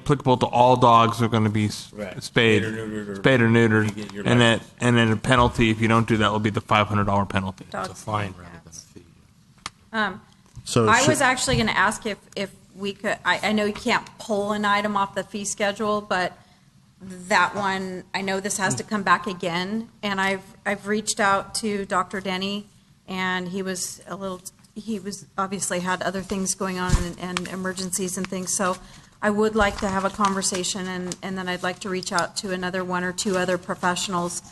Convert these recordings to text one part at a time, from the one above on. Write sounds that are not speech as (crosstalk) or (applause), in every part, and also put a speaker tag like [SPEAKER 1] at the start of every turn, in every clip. [SPEAKER 1] applicable to all dogs who are going to be s-
[SPEAKER 2] Right.
[SPEAKER 1] spayed,
[SPEAKER 2] Spayed or neutered or-
[SPEAKER 1] spayed or
[SPEAKER 2] You get your
[SPEAKER 1] neutered, and that,
[SPEAKER 2] license.
[SPEAKER 1] and then a penalty if you don't do that will be the five hundred dollar penalty.
[SPEAKER 3] dogs.
[SPEAKER 4] It's a fine rather than a fee.
[SPEAKER 5] So
[SPEAKER 3] I
[SPEAKER 5] should-
[SPEAKER 3] was actually going to ask if, if we could, I, I know you can't pull an item off the fee schedule, but that one, I know this has to come back again, and I've, I've reached out to Dr. Denny, and he was a little, he was, obviously had other things going on and, and emergencies and things, so I would like to have a conversation, and, and then I'd like to reach out to another one or two other professionals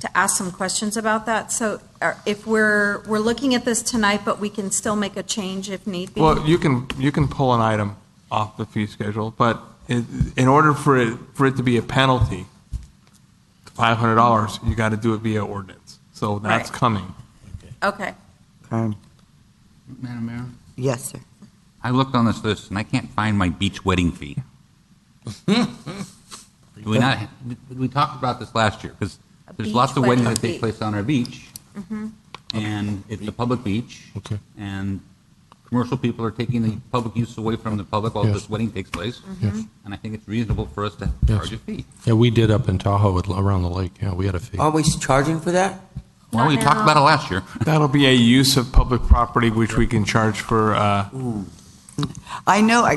[SPEAKER 3] to ask some questions about that. So are- if we're, we're looking at this tonight, but we can still make a change if need be.
[SPEAKER 1] Well, you can, you can pull an item off the fee schedule, but in, in order for it, for it to be a penalty, five hundred dollars, you got to do it via ordinance. So that's
[SPEAKER 3] Right.
[SPEAKER 1] coming.
[SPEAKER 3] Okay.
[SPEAKER 6] Um,
[SPEAKER 7] Madam Mayor?
[SPEAKER 6] Yes, sir.
[SPEAKER 7] I looked on this list and I can't find my beach wedding
[SPEAKER 3] (laughs)
[SPEAKER 7] fee. Do we not, we talked about this last year, because
[SPEAKER 3] A
[SPEAKER 7] there's
[SPEAKER 3] beach
[SPEAKER 7] lots of weddings
[SPEAKER 3] wedding
[SPEAKER 7] that take
[SPEAKER 3] fee. Mm-hmm.
[SPEAKER 7] place on our beach. And it's a public beach.
[SPEAKER 5] Okay.
[SPEAKER 7] And commercial people are taking the public use away from the public while
[SPEAKER 5] Yes.
[SPEAKER 7] this wedding takes place.
[SPEAKER 3] Mm-hmm.
[SPEAKER 5] Yes.
[SPEAKER 7] And I think it's reasonable for us to
[SPEAKER 5] Yes.
[SPEAKER 7] charge a fee.
[SPEAKER 5] Yeah, we did up in Tahoe with- around the lake. Yeah, we had a
[SPEAKER 6] Oh,
[SPEAKER 5] fee.
[SPEAKER 8] Are we charging for that?
[SPEAKER 7] Well, we
[SPEAKER 3] Not
[SPEAKER 7] talked
[SPEAKER 3] now.
[SPEAKER 7] about it last year.
[SPEAKER 1] That'll be a use of public property, which we can charge for, uh,
[SPEAKER 6] I know, I-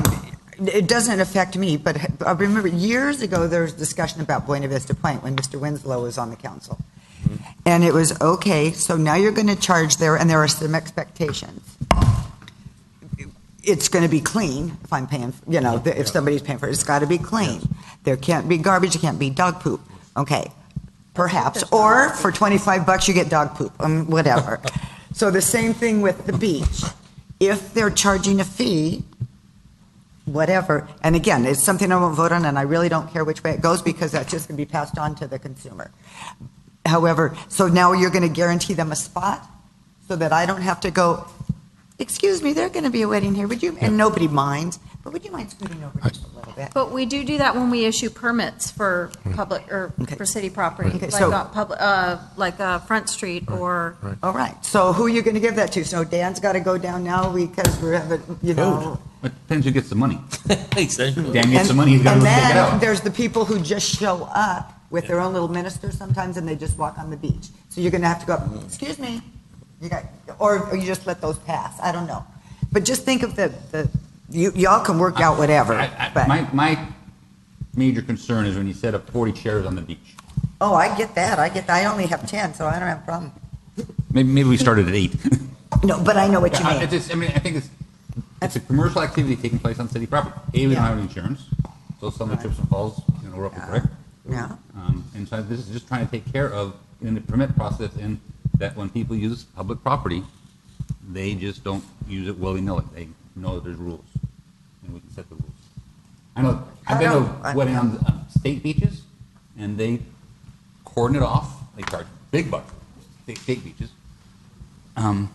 [SPEAKER 6] it doesn't affect me, but I remember years ago, there was discussion about Buena Vista Point when Mr. Winslow was on the council.
[SPEAKER 8] Mm-hmm.
[SPEAKER 6] And it was, okay, so now you're going to charge there, and there are some expectations. It's going to be clean if I'm paying, you know, if somebody's paying for it, it's got to be clean. There can't be garbage, it can't be dog poop. Okay, perhaps, or for 25 bucks, you get dog poop, um, whatever. So the same thing with the beach. If they're charging a fee, whatever, and again, it's something I won't vote on, and I really don't care which way it goes, because that's just going to be passed on to the consumer. However, so now you're going to guarantee them a spot, so that I don't have to go, excuse me, there's going to be a wedding here, would you, and nobody minds, but would you mind scooting over just a little bit?
[SPEAKER 3] But we do do that when we issue permits for public, or
[SPEAKER 6] Hmm. Okay.
[SPEAKER 3] for city property,
[SPEAKER 6] Okay,
[SPEAKER 3] like
[SPEAKER 6] so-
[SPEAKER 3] on public, uh, like, uh, Front Street or,
[SPEAKER 6] All right, so who are you going to give that to? So Dan's got to go down now because we're having, you know.
[SPEAKER 7] It depends who gets
[SPEAKER 3] (laughs)
[SPEAKER 7] the money.
[SPEAKER 2] Exactly.
[SPEAKER 7] Dan gets the
[SPEAKER 6] And-
[SPEAKER 7] money, he's got to
[SPEAKER 6] And
[SPEAKER 7] go take it
[SPEAKER 6] then
[SPEAKER 7] out.
[SPEAKER 6] there's the people who just show up with their own little minister sometimes and they just walk on the beach. So you're going to have to go, up, excuse me, you got, or or you just let those pass, I don't know. But just think of the, the, you, y'all can work out whatever,
[SPEAKER 7] I- I-
[SPEAKER 6] but,
[SPEAKER 7] My, my major concern is when you set up 40 chairs on the beach.
[SPEAKER 6] oh, I get that, I get, that. I only have 10, so I don't have a problem.
[SPEAKER 7] Maybe, maybe we started at eight.
[SPEAKER 6] (laughs) No, but I know what you
[SPEAKER 7] I, I
[SPEAKER 6] mean.
[SPEAKER 7] just, I mean, I think it's, it's a commercial activity taking place on city property. A, we don't
[SPEAKER 6] Yeah.
[SPEAKER 7] have any insurance, so some of the trips and falls, you know, we're up
[SPEAKER 6] Yeah.
[SPEAKER 7] for brick.
[SPEAKER 6] Yeah.
[SPEAKER 7] Um, and so this is just trying to take care of, in the permit process, and that when people use public property, they just don't use it willy-nilly. They know that there's rules, and we can set the rules. I know, I've been
[SPEAKER 6] I
[SPEAKER 7] to
[SPEAKER 6] don't- I-
[SPEAKER 7] wedding on um, state beaches, and they cordon it off. They charge big bucks, state, state beaches. Um,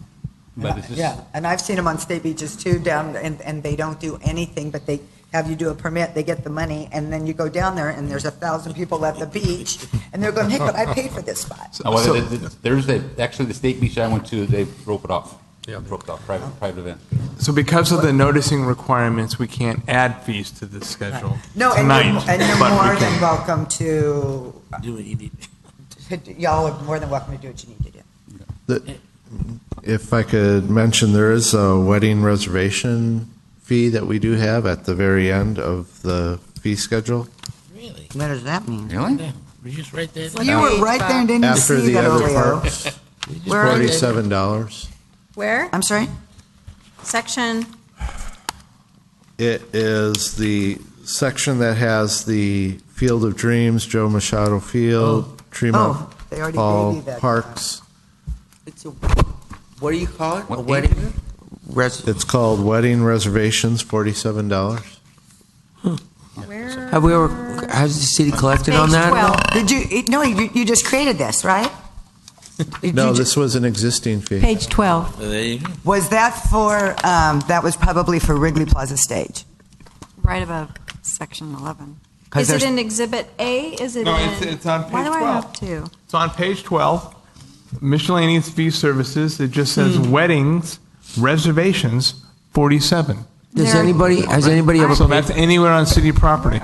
[SPEAKER 7] but it's just,
[SPEAKER 6] Yeah, and I've seen them on state beaches too, down, and, and they don't do anything, but they have you do a permit, they get the money, and then you go down there, and there's a thousand people at the beach, and they're going, hey, but I paid for this spot.
[SPEAKER 7] Oh, well, th- th- there's a, actually the state beach I went to, they rope it off.
[SPEAKER 5] Yeah.
[SPEAKER 7] Roped off, private, private event.
[SPEAKER 1] so because of the noticing requirements, we can't add fees to this schedule
[SPEAKER 6] No, and you're,
[SPEAKER 1] tonight.
[SPEAKER 6] and you're
[SPEAKER 1] but we
[SPEAKER 6] more
[SPEAKER 1] can-
[SPEAKER 6] than welcome to,
[SPEAKER 2] Do what you need.
[SPEAKER 6] (laughs) y'all are more than welcome to do what you need to do.
[SPEAKER 9] The- If I could mention, there is a wedding reservation fee that we do have at the very end of the fee schedule.
[SPEAKER 2] Really?
[SPEAKER 6] What does that mean?
[SPEAKER 7] Really?
[SPEAKER 2] Yeah, we just right there.
[SPEAKER 6] You were right there and didn't
[SPEAKER 9] After
[SPEAKER 6] see
[SPEAKER 9] the
[SPEAKER 6] that
[SPEAKER 9] other
[SPEAKER 6] earlier.
[SPEAKER 9] parks,
[SPEAKER 6] Where are you?
[SPEAKER 9] forty-seven dollars.
[SPEAKER 3] where?
[SPEAKER 6] I'm sorry?
[SPEAKER 3] Section,
[SPEAKER 9] It is the section that has the Field of Dreams, Joe Machado Field,
[SPEAKER 6] Oh,
[SPEAKER 9] Tremont
[SPEAKER 6] they already gave you
[SPEAKER 9] Hall
[SPEAKER 6] that.
[SPEAKER 9] Parks.
[SPEAKER 8] It's a, what do you call it?
[SPEAKER 7] What,
[SPEAKER 8] a wedding?
[SPEAKER 7] eight?
[SPEAKER 8] Res-
[SPEAKER 9] It's called Wedding Reservations, forty-seven dollars.
[SPEAKER 3] where?
[SPEAKER 8] have we ever, has the city collected on
[SPEAKER 3] Page
[SPEAKER 8] that?
[SPEAKER 3] 12.
[SPEAKER 6] Oh, Did you, no, you, you just created this, right? Did
[SPEAKER 9] No,
[SPEAKER 6] you ju-
[SPEAKER 9] this was an existing fee.
[SPEAKER 10] Page 12.
[SPEAKER 2] There you go.
[SPEAKER 6] Was that for, um, that was probably for Wrigley Plaza Stage?
[SPEAKER 10] Right above section 11.
[SPEAKER 6] 'Cause
[SPEAKER 3] Is it
[SPEAKER 6] there's-
[SPEAKER 3] in Exhibit A? Is it in?
[SPEAKER 1] No, it's- it's on
[SPEAKER 10] Why
[SPEAKER 1] page
[SPEAKER 10] do I
[SPEAKER 1] 12.
[SPEAKER 10] have two?
[SPEAKER 1] It's on page 12, miscellaneous fee services, it just says weddings, reservations, 47.
[SPEAKER 8] Does
[SPEAKER 10] There-
[SPEAKER 8] anybody, has anybody ever
[SPEAKER 1] So that's anywhere on city property.